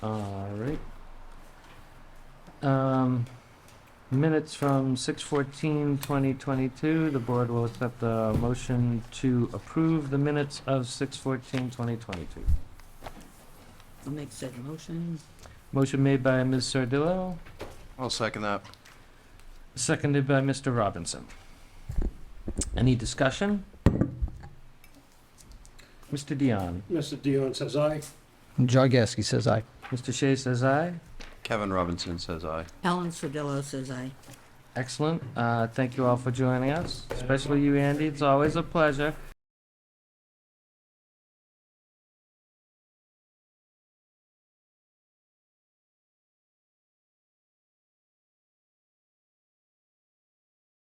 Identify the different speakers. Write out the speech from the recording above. Speaker 1: Um, minutes from six fourteen twenty twenty-two, the board will accept the motion to approve the minutes of six fourteen twenty twenty-two.
Speaker 2: I'll make said motion.
Speaker 1: Motion made by Ms. Sardillo,
Speaker 3: I'll second that.
Speaker 1: seconded by Mr. Robinson. Any discussion? Mr. Dion,
Speaker 4: Mr. Dion says aye.
Speaker 5: John Gasky says aye.
Speaker 1: Mr. Shea says aye.
Speaker 3: Kevin Robinson says aye.
Speaker 2: Helen Sordillo says aye.
Speaker 1: Excellent. Uh, thank you all for joining us, especially you, Andy. It's always a pleasure.